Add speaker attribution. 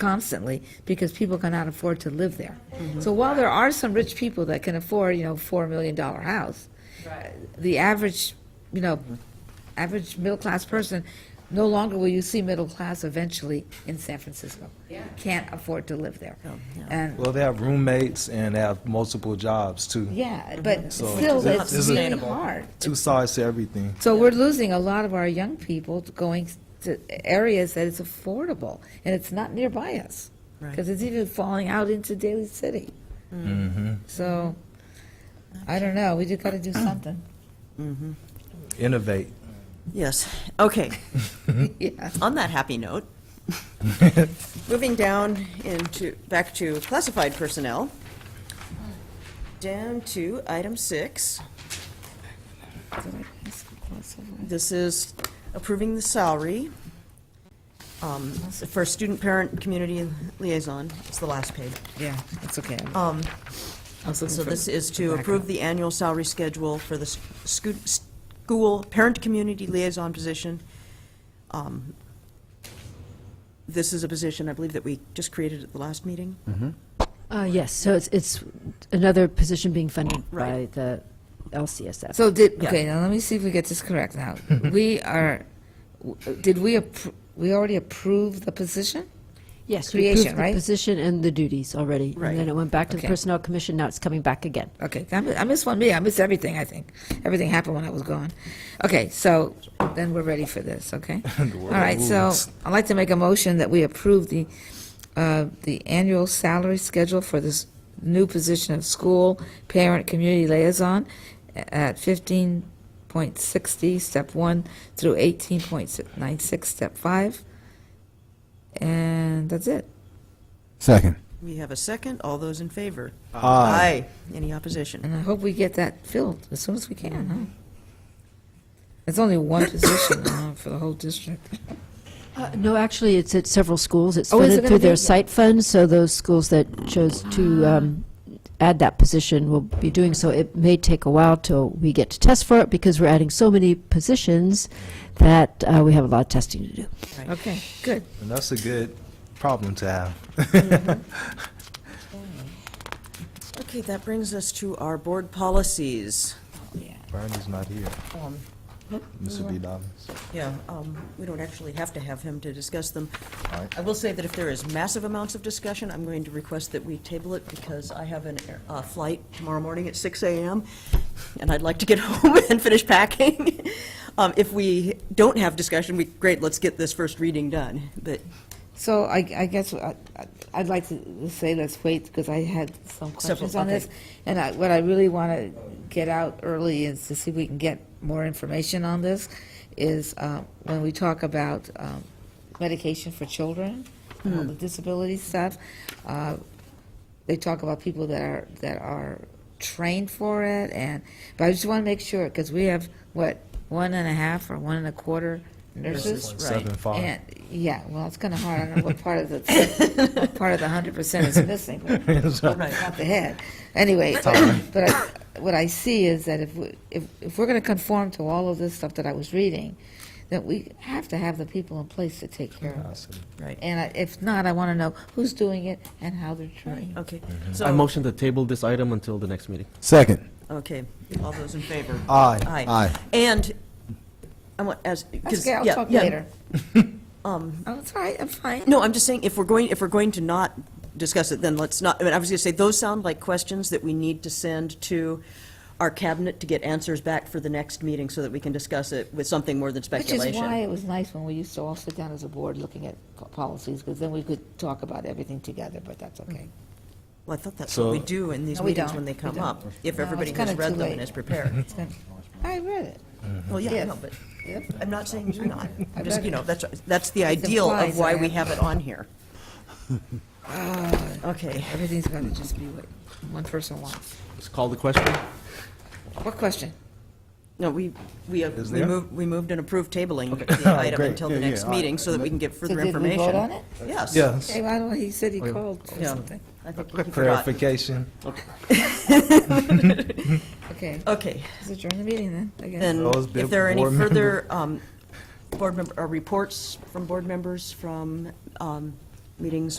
Speaker 1: constantly because people cannot afford to live there. So while there are some rich people that can afford, you know, four million dollar house, the average, you know, average middle class person, no longer will you see middle class eventually in San Francisco. Can't afford to live there. And,
Speaker 2: Well, they have roommates and they have multiple jobs too.
Speaker 1: yeah, but
Speaker 2: So
Speaker 1: still,
Speaker 2: this-
Speaker 1: it's
Speaker 2: this is-
Speaker 1: really hard.
Speaker 2: Two sides to everything.
Speaker 1: So we're losing a lot of our young people to going to areas that it's affordable and it's not nearby us. Because it's even falling out into Daly City. So, I don't know, we just gotta do something.
Speaker 2: Innovate.
Speaker 3: Yes, okay.
Speaker 1: Yeah,
Speaker 3: On that happy note, moving down into, back to classified personnel, down to item six. This is approving the salary um, for student-parent community liaison. It's the last page.
Speaker 1: yeah, that's okay.
Speaker 3: Um,
Speaker 1: I was looking
Speaker 3: So
Speaker 1: for
Speaker 3: this is
Speaker 1: the
Speaker 3: to
Speaker 1: backup.
Speaker 3: approve the annual salary schedule for the s- scu- school parent community liaison position. Um, This is a position, I believe, that we just created at the last meeting.
Speaker 4: Uh, yes, so it's, it's another position being funded by
Speaker 3: Right.
Speaker 4: the LCSF.
Speaker 1: So did,
Speaker 3: Yeah.
Speaker 1: okay, now let me see if we get this correct now. We are, w- did we, appro- we already approved the position?
Speaker 4: Yes,
Speaker 1: creation,
Speaker 4: you approved
Speaker 1: right?
Speaker 4: the position and the duties already.
Speaker 3: Right.
Speaker 4: And then it went back to the
Speaker 1: Okay.
Speaker 4: Personnel Commission, now it's coming back again.
Speaker 1: Okay, I miss, I miss one meeting. I miss everything. I think everything happened when I was gone. Okay, so then we're ready for this. Okay. All right. So
Speaker 2: rules.
Speaker 1: I'd like to make a motion that we approve the uh, the annual salary schedule for this new position of school parent community liaison at fifteen point sixty, step one, through eighteen point nine six, step five, and that's it.
Speaker 5: Second.
Speaker 3: We have a second. All those in favor?
Speaker 2: Aye.
Speaker 3: Any opposition?
Speaker 1: And I hope we get that filled as soon as we can, huh? It's only one position uh, for the whole district.
Speaker 4: Uh, no, actually, it's at several schools. It's
Speaker 1: Oh, is it gonna
Speaker 4: funded through
Speaker 1: be- Ah.
Speaker 4: their site funds, so those schools that chose to um, add that position will be doing so. It may take a while till we get to test for it because we're adding so many positions that uh, we have a lot of testing to do.
Speaker 1: Okay, good.
Speaker 2: And that's a good problem to have.
Speaker 3: Okay, that brings us to our board policies.
Speaker 2: Bernie's not here. Mr. B. Dobbins.
Speaker 3: Yeah, um, we don't actually have to have him to discuss them.
Speaker 2: All right.
Speaker 3: I will say that if there is massive amounts of discussion, I'm going to request that we table it because I have an air- a flight tomorrow morning at 6 AM, and I'd like to get home and finish packing. Um, If we don't have discussion, we, great, let's get this first reading done, but,
Speaker 1: So I, I guess I- I- I'd like to say let's wait because I had some questions on
Speaker 3: okay.
Speaker 1: this. And I, what I really want to get out early is to see if we can get more information on this, is uh, when we talk about um, medication for children, all the disability stuff, uh, they talk about people that are, that are trained for it and, but I just want to make sure, because we have, what, one and a half or one and a quarter nurses?
Speaker 2: Seven five.
Speaker 1: And, yeah, well, it's kind of hard, I don't know what part of the, what part of the hundred percent is missing, but
Speaker 3: right.
Speaker 1: not the head. Anyway, but I- what I see is that if, we- if, if we're going to conform to all of this stuff that I was reading, that we have to have the people in place to take care of it.
Speaker 3: right,
Speaker 1: And I- if not, I want to know who's doing it and how they're trained.
Speaker 3: okay.
Speaker 2: Mm-hmm.
Speaker 6: I
Speaker 3: So,
Speaker 6: motion to table this item until the next meeting.
Speaker 5: Second.
Speaker 3: okay, all those in favor?
Speaker 2: Aye.
Speaker 3: Aye.
Speaker 5: Aye.
Speaker 3: And, I want, as,
Speaker 1: That's
Speaker 3: because,
Speaker 1: okay,
Speaker 3: yeah,
Speaker 1: I'll
Speaker 3: yeah.
Speaker 1: talk later. Oh, it's all right, I'm fine.
Speaker 3: No, I'm just saying, if we're going, if we're going to not discuss it, then let's not, I mean, I was going to say, those sound like questions that we need to send to our cabinet to get answers back for the next meeting so that we can discuss it with something more than
Speaker 1: Which is why
Speaker 3: speculation.
Speaker 1: it was nice when we used to all sit down as a board looking at po- policies, because then we could talk about everything together, but that's okay.
Speaker 3: Well, I thought that's what we do in these
Speaker 1: Mm-hmm. No, we
Speaker 3: meetings
Speaker 1: don't.
Speaker 3: when they
Speaker 1: We
Speaker 3: come
Speaker 1: don't.
Speaker 3: up, if
Speaker 1: No,
Speaker 3: everybody
Speaker 1: it's
Speaker 3: has
Speaker 1: kinda too
Speaker 3: read them and
Speaker 1: late.
Speaker 3: is prepared.
Speaker 1: It's good. I read it.
Speaker 3: Well, yeah,
Speaker 1: Yes.
Speaker 3: no, but
Speaker 1: Yep.
Speaker 3: I'm not saying do not.
Speaker 1: I
Speaker 3: I'm just,
Speaker 1: read
Speaker 3: you
Speaker 1: it.
Speaker 3: know, that's, that's the ideal
Speaker 1: implies
Speaker 3: of why
Speaker 1: I
Speaker 3: we
Speaker 1: have-
Speaker 3: have it on here. Okay.
Speaker 1: Ah, Everything's got to just be what one person wants.
Speaker 6: Let's call the question.
Speaker 1: What question?
Speaker 3: No, we, we, uh, we
Speaker 2: there?
Speaker 3: moved, we moved and approved tabling the item
Speaker 2: Great.
Speaker 3: until the
Speaker 2: Yeah, yeah,
Speaker 3: next
Speaker 2: all right.
Speaker 3: meeting so that we can get
Speaker 1: So
Speaker 3: further
Speaker 1: did we
Speaker 3: information.
Speaker 1: vote on it?
Speaker 3: Yes.
Speaker 2: Yes.
Speaker 1: Hey, I don't, he said he called for
Speaker 3: Yeah.
Speaker 1: something.
Speaker 3: I think you forgot.
Speaker 2: Clarification.
Speaker 1: Okay,
Speaker 3: Okay,
Speaker 1: let's adjourn the meeting then, I guess.
Speaker 3: then,
Speaker 2: Those big
Speaker 3: if there are any
Speaker 2: board
Speaker 3: further um, board member, uh, reports from board members from um, meetings